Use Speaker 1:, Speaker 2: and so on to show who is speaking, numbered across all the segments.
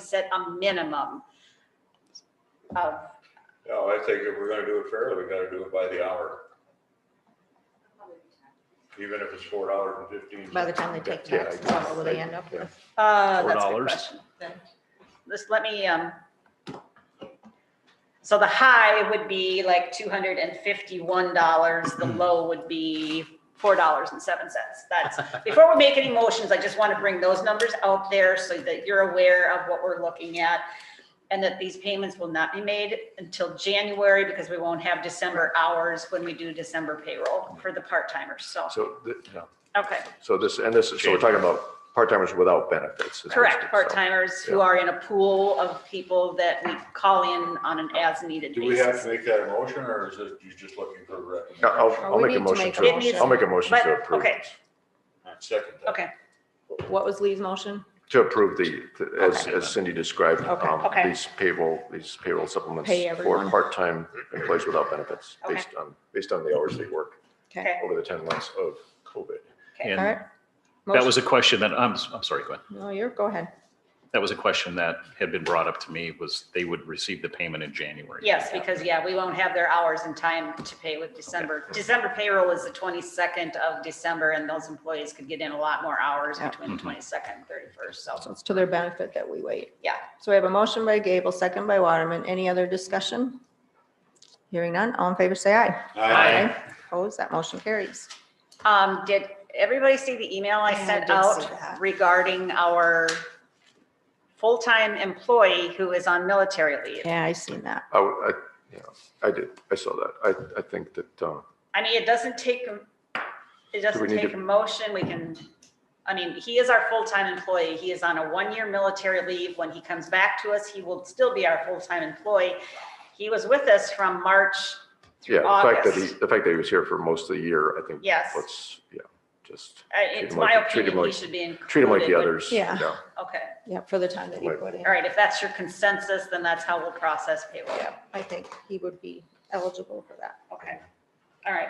Speaker 1: set a minimum of,
Speaker 2: No, I think if we're gonna do it fairly, we gotta do it by the hour. Even if it's four dollars and fifteen.
Speaker 3: By the time they take
Speaker 2: Yeah,
Speaker 3: taxes,
Speaker 2: I-
Speaker 3: what will they end up with?
Speaker 1: uh, that's a good
Speaker 4: $4.
Speaker 1: question. Just let me, um, so the high would be like two hundred and fifty-one dollars, the low would be four dollars and seven cents. That's, before we make any motions, I just want to bring those numbers out there so that you're aware of what we're looking at. And that these payments will not be made until January because we won't have December hours when we do December payroll for the part-timers, so,
Speaker 5: So, th- yeah.
Speaker 1: okay.
Speaker 5: so this, and this, is so we're talking about part-timers without benefits. is what it
Speaker 1: Correct,
Speaker 5: is.
Speaker 1: part-timers who
Speaker 5: yeah.
Speaker 1: are in a pool of people that we call in on an as-needed
Speaker 2: Do we have
Speaker 1: basis.
Speaker 2: to make that a motion or is it, you just looking for a
Speaker 5: Yeah, I'll,
Speaker 2: recommendation?
Speaker 5: I'll
Speaker 3: We
Speaker 5: make a
Speaker 3: need to
Speaker 5: motion
Speaker 3: make a
Speaker 5: to,
Speaker 3: motion.
Speaker 5: I'll make a motion to
Speaker 1: But,
Speaker 5: approve,
Speaker 1: okay.
Speaker 5: this.
Speaker 2: Second that.
Speaker 1: Okay,
Speaker 3: What was Lee's motion?
Speaker 5: to approve the, the- as,
Speaker 4: Okay.
Speaker 5: as Cindy described,
Speaker 3: Okay.
Speaker 5: um,
Speaker 1: Okay.
Speaker 5: these payroll, these payroll supplements
Speaker 3: Pay
Speaker 5: for
Speaker 3: everyone.
Speaker 5: part-time employees without benefits,
Speaker 1: Okay.
Speaker 5: based on, based on the hours they work
Speaker 1: okay.
Speaker 5: over the ten months of COVID.
Speaker 3: All right.
Speaker 4: And that was a question that, I'm, I'm sorry, go ahead.
Speaker 3: No, you're, go ahead.
Speaker 4: That was a question that had been brought up to me was they would receive the payment in January.
Speaker 1: Yes, because, yeah, we won't have their hours in time to pay with December. December payroll is the twenty-second of December, and those employees could get in a lot more hours
Speaker 3: Yeah.
Speaker 1: between
Speaker 4: Mhm.
Speaker 1: twenty-second and thirty-first,
Speaker 3: So
Speaker 1: so.
Speaker 3: it's to their benefit that we wait.
Speaker 1: Yeah.
Speaker 3: So we have a motion by Gable, second by Waterman. Any other discussion? Hearing none, all in favor, say aye.
Speaker 2: Aye.
Speaker 3: Opposed, that motion carries.
Speaker 1: Um, did everybody see the email I
Speaker 3: Yeah, I
Speaker 1: sent
Speaker 3: did see
Speaker 1: out
Speaker 3: that.
Speaker 1: regarding our full-time employee who is on military leave?
Speaker 3: Yeah, I seen that.
Speaker 5: I, would- I, yeah, I did, I saw that. I, I think that, uh,
Speaker 1: I mean, it doesn't take, a- it doesn't
Speaker 5: need
Speaker 1: take
Speaker 5: to-
Speaker 1: a motion, we can, I mean, he is our full-time employee, he is on a one-year military leave, when he comes back to us, he will still be our full-time employee. He was with us from March through
Speaker 5: yeah, the fact that he,
Speaker 1: August.
Speaker 5: the fact that he was here for most of the year, I think.
Speaker 1: Yes.
Speaker 5: Let's, yeah, just
Speaker 1: I-
Speaker 5: treat
Speaker 1: It's
Speaker 5: him
Speaker 1: my
Speaker 5: like- treat
Speaker 1: opinion,
Speaker 5: him
Speaker 1: he
Speaker 5: like-
Speaker 1: should be included.
Speaker 5: treat him like the
Speaker 1: but-
Speaker 5: others.
Speaker 3: Yeah.
Speaker 1: Okay,
Speaker 3: Yeah, for the time that he
Speaker 5: Right.
Speaker 3: put in.
Speaker 1: all right, if that's your consensus, then that's how we'll process payroll.
Speaker 3: Yeah, I think he would be eligible for that.
Speaker 1: Okay, all right.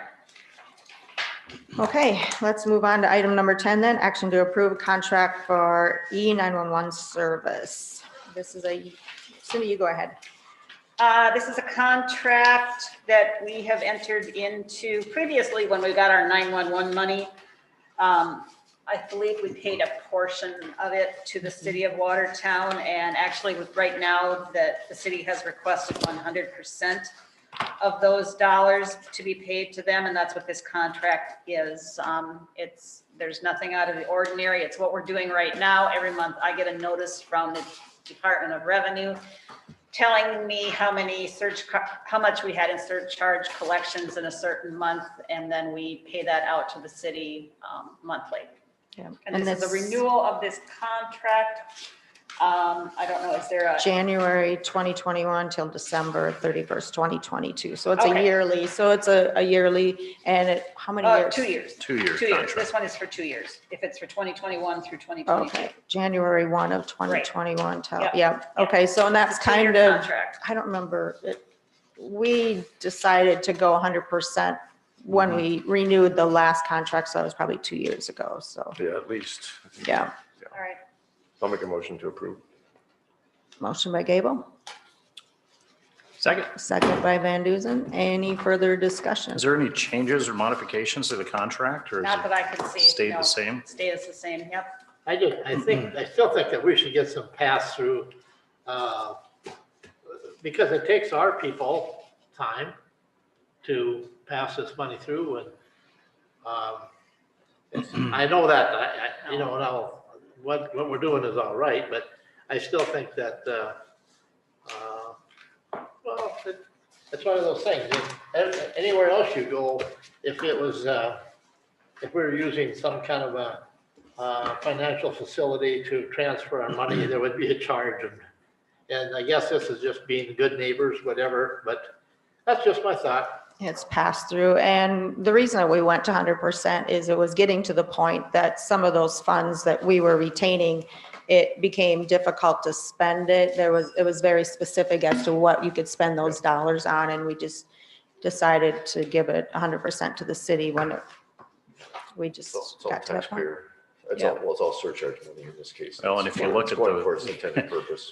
Speaker 3: Okay, let's move on to item number 10 then, action to approve a contract for E E911 service. This is a, Cindy, you go ahead.
Speaker 1: Uh, This is a contract that we have entered into previously when we got our 911 money. Um, I believe we paid a portion of it to the city of Watertown, and actually, with- right now, that the city has requested 100% of those dollars to be paid to them, and that's what this contract is. Um, It's, there's nothing out of the ordinary, it's what we're doing right now. Every month, I get a notice from the Department of Revenue telling me how many search, co- how much we had in surcharge collections in a certain month, and then we pay that out to the city um, monthly.
Speaker 3: Yeah,
Speaker 1: And this is a renewal of this contract. Um, I don't know, is there a,
Speaker 3: January 2021 till December 31st, 2022. So it's a
Speaker 1: Okay.
Speaker 3: yearly, so it's a a yearly, and it, how many
Speaker 1: uh,
Speaker 3: years?
Speaker 1: two years,
Speaker 4: Two-year
Speaker 1: two years. This
Speaker 4: contract.
Speaker 1: one is for two years, if it's for 2021 through 2022.
Speaker 3: Okay, January 1 of
Speaker 1: Right.
Speaker 3: 2021 till,
Speaker 1: Yep.
Speaker 3: yeah, okay, so and that's
Speaker 1: It's a two-year
Speaker 3: kind of,
Speaker 1: Contract.
Speaker 3: I don't remember, it- we decided to go 100%
Speaker 1: Mm-hmm.
Speaker 3: when we renewed the last contract, so that was probably two years ago, so,
Speaker 5: Yeah, at least. I think-
Speaker 3: yeah.
Speaker 1: All right,
Speaker 5: I'll make a motion to approve.
Speaker 3: Motion by Gable,
Speaker 4: Second,
Speaker 3: second by Van Duzen. Any further discussion?
Speaker 4: is there any changes or modifications to the contract or is
Speaker 1: not that I can
Speaker 4: it
Speaker 1: see.
Speaker 4: stayed
Speaker 1: no.
Speaker 4: the same?
Speaker 1: Stays the same, yep.
Speaker 6: I do, I think, I still think that we should get some pass-through, uh, because it takes our people time to pass this money through and, um, it's- I know that, I, I, you know, now, what, what we're doing is all right, but I still think that, uh, uh, well, it- it's one of those things, if- anywhere else you go, if it was, uh, if we were using some kind of a, uh, financial facility to transfer our money, there would be a charge. And and I guess this is just being good neighbors, whatever, but that's just my thought.
Speaker 3: It's passed through, and the reason that we went to hundred percent is it was getting to the point that some of those funds that we were retaining, it became difficult to spend it. There was, it was very specific as to what you could spend those dollars on, and we just decided to give it hundred percent to the city when it, we just
Speaker 5: It's all- it's all
Speaker 3: got to that point.
Speaker 5: taxpayer. It's all, well, it's all surcharge money in this case.
Speaker 4: Well, and if you
Speaker 5: It's
Speaker 4: look at
Speaker 5: Going
Speaker 4: the-
Speaker 5: for its intended purpose.